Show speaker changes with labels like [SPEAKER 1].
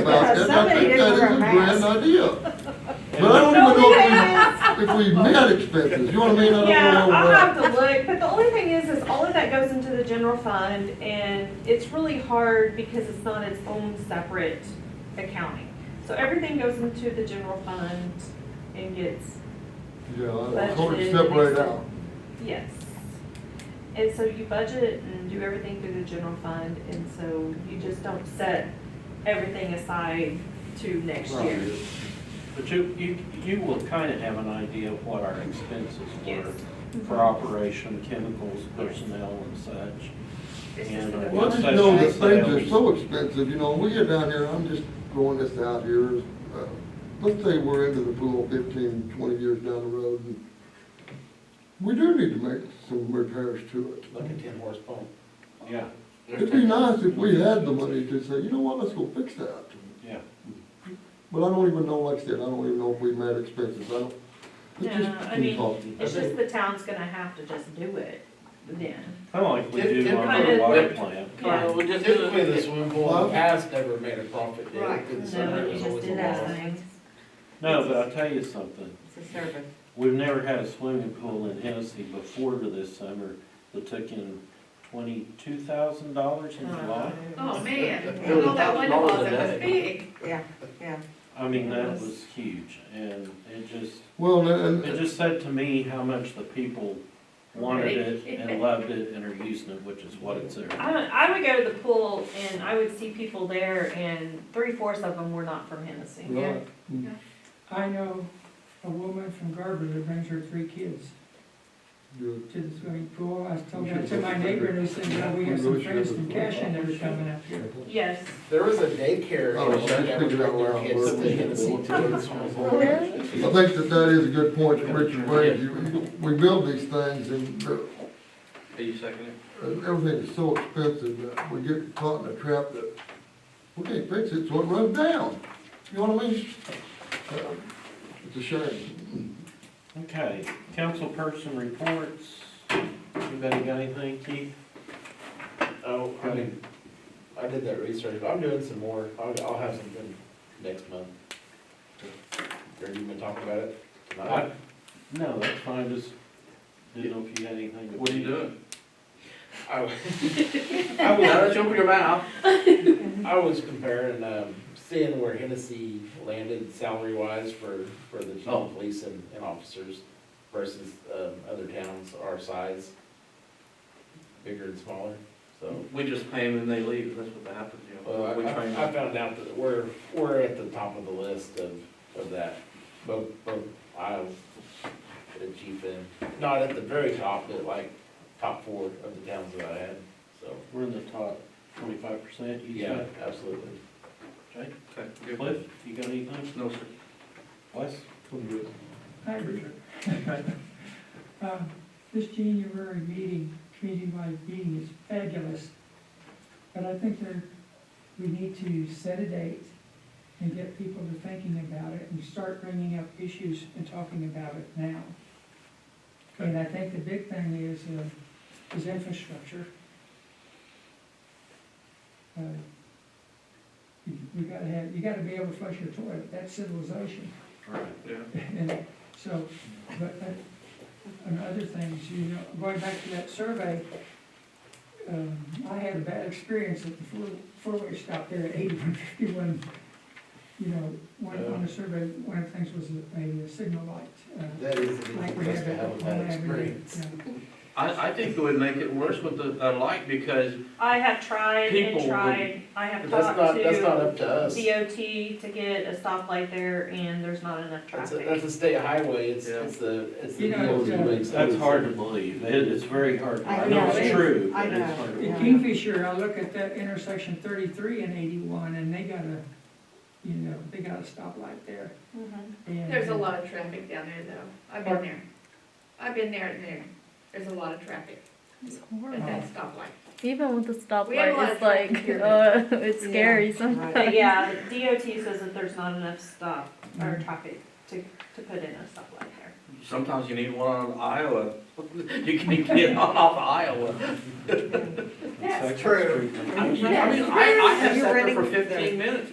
[SPEAKER 1] that, I
[SPEAKER 2] Somebody
[SPEAKER 1] think
[SPEAKER 2] didn't
[SPEAKER 1] that is
[SPEAKER 2] wear a
[SPEAKER 1] a grand
[SPEAKER 2] mask.
[SPEAKER 1] idea. But I don't even know if we, if we met expenses, you know what I mean? I don't
[SPEAKER 2] Yeah, uh-huh.
[SPEAKER 1] know
[SPEAKER 2] I'll
[SPEAKER 1] where-
[SPEAKER 2] have to look, but the only thing is, is all of that goes into the general fund, and it's really hard because it's not its own separate accounting. So everything goes into the general fund and gets,
[SPEAKER 1] Yeah, I
[SPEAKER 2] Budgeted
[SPEAKER 1] totally
[SPEAKER 2] and
[SPEAKER 1] separate
[SPEAKER 2] expense.
[SPEAKER 1] out.
[SPEAKER 2] yes. And so you budget and do everything through the general fund, and so you just don't set everything aside to next year.
[SPEAKER 1] Right.
[SPEAKER 3] But you, you, you will kind of have an idea of what our expenses
[SPEAKER 2] Yes.
[SPEAKER 3] were for operation, chemicals, personnel and such.
[SPEAKER 2] It's
[SPEAKER 3] And,
[SPEAKER 2] just
[SPEAKER 3] uh,
[SPEAKER 2] a-
[SPEAKER 1] Well, I just know that things are so expensive, you know, we get down here, I'm just throwing this out here. uh, Let's say we're into the pool fifteen, twenty years down the road, and we do need to make some repairs to it.
[SPEAKER 4] Look at Tim Moore's pump.
[SPEAKER 3] Yeah,
[SPEAKER 1] It'd be nice if we had the money to say, you know what, let's go fix that.
[SPEAKER 3] yeah.
[SPEAKER 1] But I don't even know, like I said, I don't even know if we met expenses, I don't.
[SPEAKER 2] No,
[SPEAKER 1] It's just
[SPEAKER 2] I mean,
[SPEAKER 1] default.
[SPEAKER 2] It's just the town's gonna have to just do it then.
[SPEAKER 3] Kind of like we
[SPEAKER 4] Tim-
[SPEAKER 3] do
[SPEAKER 4] Tim
[SPEAKER 3] on
[SPEAKER 2] kinda-
[SPEAKER 3] our water plant.
[SPEAKER 2] Yeah.
[SPEAKER 5] Carl, we just do
[SPEAKER 4] Typically, the
[SPEAKER 5] it.
[SPEAKER 4] swimming pool in the past never made a profit, did
[SPEAKER 5] Right.
[SPEAKER 4] it? Because
[SPEAKER 2] No,
[SPEAKER 4] summer
[SPEAKER 2] you
[SPEAKER 4] was
[SPEAKER 2] just
[SPEAKER 4] always a
[SPEAKER 2] did that
[SPEAKER 4] loss.
[SPEAKER 2] thing.
[SPEAKER 3] No, but I'll tell you something.
[SPEAKER 5] It's a service.
[SPEAKER 3] We've never had a swimming pool in Hennessy before to this summer that took in twenty-two thousand dollars
[SPEAKER 2] Uh-huh.
[SPEAKER 3] in July.
[SPEAKER 6] Oh, man,
[SPEAKER 4] It
[SPEAKER 6] I know that
[SPEAKER 4] was
[SPEAKER 6] one
[SPEAKER 4] all
[SPEAKER 6] was,
[SPEAKER 4] the
[SPEAKER 6] it was
[SPEAKER 4] day.
[SPEAKER 6] big.
[SPEAKER 5] Yeah, yeah.
[SPEAKER 3] I mean, that was huge and it just,
[SPEAKER 1] Well, and,
[SPEAKER 3] It
[SPEAKER 1] and,
[SPEAKER 3] just said to me how much the people wanted it and loved it and are using it, which is what it's there.
[SPEAKER 2] I would, I would go to the pool and I would see people there and three fourths of them were not from Hennessy.
[SPEAKER 1] right,
[SPEAKER 7] I know a woman from Garber that brings her three kids
[SPEAKER 1] yeah.
[SPEAKER 7] to the swimming pool. I told that to my neighbor and they said, well, we have some friends from Cashin that are coming up here.
[SPEAKER 2] Yes.
[SPEAKER 4] There was a daycare.
[SPEAKER 1] Oh,
[SPEAKER 4] in Chuck
[SPEAKER 1] that's
[SPEAKER 4] that would
[SPEAKER 1] figured out
[SPEAKER 4] bring their
[SPEAKER 1] where I
[SPEAKER 4] kids to
[SPEAKER 1] work.
[SPEAKER 4] Hennessy to the swimming
[SPEAKER 2] Oh,
[SPEAKER 4] pool.
[SPEAKER 5] Really?
[SPEAKER 1] I think that that is a good point that Richard raised. You- We build these things and they're-
[SPEAKER 8] Are you seconding?
[SPEAKER 1] and everything is so expensive that we get caught in a trap that we can't fix it, so it runs down. You know what I mean? Uh, It's a shame.
[SPEAKER 3] Okay, council person reports. Anybody got anything, Keith?
[SPEAKER 4] Oh, I mean, I did that research, but I'm doing some more, I'll, I'll have something next month. Or you been talking about it tonight?
[SPEAKER 3] I- No, that's fine, just didn't know if you had anything. to-
[SPEAKER 8] What are you doing?
[SPEAKER 4] I was- I was-
[SPEAKER 8] Now that you open your mouth.
[SPEAKER 4] I was comparing, um, seeing where Hennessy landed salary wise for, for the chief
[SPEAKER 8] Oh.
[SPEAKER 4] of police and, and officers versus, um, other towns our size, bigger and smaller, so.
[SPEAKER 8] We just pay them and they leave, that's what happens, you
[SPEAKER 4] Well,
[SPEAKER 8] know.
[SPEAKER 4] I,
[SPEAKER 8] We train
[SPEAKER 4] I I
[SPEAKER 8] them.
[SPEAKER 4] found out that we're, we're at the top of the list of, of that, both, both Iowa, the chief and, not at the very top, but like top four of the towns that I had, so,
[SPEAKER 3] We're in the top twenty-five percent, you
[SPEAKER 4] yeah,
[SPEAKER 3] said?
[SPEAKER 4] absolutely.
[SPEAKER 3] Okay.
[SPEAKER 8] Okay, good.
[SPEAKER 3] Cliff, you got anything?
[SPEAKER 8] No, sir.
[SPEAKER 3] Wes?
[SPEAKER 7] Hi, Richard. Um, This January meeting, community-wide meeting is fabulous, but I think there, we need to set a date and get people to thinking about it and start bringing up issues and talking about it now. And I think the big thing is, uh, is infrastructure. Uh, You you gotta have, you gotta be able to flush your toilet, that's civilization.
[SPEAKER 3] Right.
[SPEAKER 8] Yeah.
[SPEAKER 7] And so, but, uh, and other things, you know, going back to that survey, um, I had a bad experience at the four, four-way stop there at eighty-one fifty-one. You know, one, on the survey, one of the things was a, a signal light, uh,
[SPEAKER 4] That is, the
[SPEAKER 7] like we
[SPEAKER 4] place
[SPEAKER 7] have
[SPEAKER 4] to
[SPEAKER 7] at
[SPEAKER 4] have a
[SPEAKER 7] Oklahoma
[SPEAKER 4] bad
[SPEAKER 7] Avenue.
[SPEAKER 4] experience.
[SPEAKER 7] yeah.
[SPEAKER 8] I, I think it would make it worse with the, the light because
[SPEAKER 2] I have tried and
[SPEAKER 8] People would-
[SPEAKER 2] tried. I
[SPEAKER 4] But
[SPEAKER 2] have
[SPEAKER 4] that's
[SPEAKER 2] talked
[SPEAKER 4] not, that's not
[SPEAKER 2] to
[SPEAKER 4] up to us.
[SPEAKER 2] DOT to get a stoplight there and there's not enough
[SPEAKER 4] That's a, that's
[SPEAKER 2] traffic.
[SPEAKER 4] a state highway, it's,
[SPEAKER 8] Yeah.
[SPEAKER 4] it's the, it's the
[SPEAKER 7] You know,
[SPEAKER 4] DOT
[SPEAKER 7] it's, uh,
[SPEAKER 4] makes
[SPEAKER 3] That's
[SPEAKER 4] those.
[SPEAKER 3] hard to believe. It, it's very hard.
[SPEAKER 5] I
[SPEAKER 3] I know
[SPEAKER 7] know.
[SPEAKER 3] it's true, but
[SPEAKER 5] I
[SPEAKER 3] it's
[SPEAKER 5] know.
[SPEAKER 3] hard to believe.
[SPEAKER 7] In Kingfisher, I look at that intersection thirty-three and eighty-one, and they got a, you know, they got a stoplight there,
[SPEAKER 2] Mhm.
[SPEAKER 7] and.
[SPEAKER 6] There's a lot of traffic down there though. I've been there. I've been there and there. There's a lot of traffic
[SPEAKER 9] It's
[SPEAKER 6] at
[SPEAKER 7] Oh.
[SPEAKER 9] horrible.
[SPEAKER 6] that stoplight.
[SPEAKER 9] Even with the
[SPEAKER 6] We have a lot of
[SPEAKER 9] stoplight, it's
[SPEAKER 6] traffic
[SPEAKER 9] like,
[SPEAKER 6] here,
[SPEAKER 9] uh, it's
[SPEAKER 5] Yeah,
[SPEAKER 9] scary sometimes.
[SPEAKER 5] right.
[SPEAKER 2] But yeah, DOT says that there's not enough stop or
[SPEAKER 4] Mm-hmm.
[SPEAKER 2] traffic to, to put in a stoplight there.
[SPEAKER 8] sometimes you need one on Iowa. You can get on off Iowa.
[SPEAKER 3] That's
[SPEAKER 6] true.
[SPEAKER 8] I mean, I, I have
[SPEAKER 5] You're
[SPEAKER 8] sat there
[SPEAKER 5] running-
[SPEAKER 8] for fifteen minutes.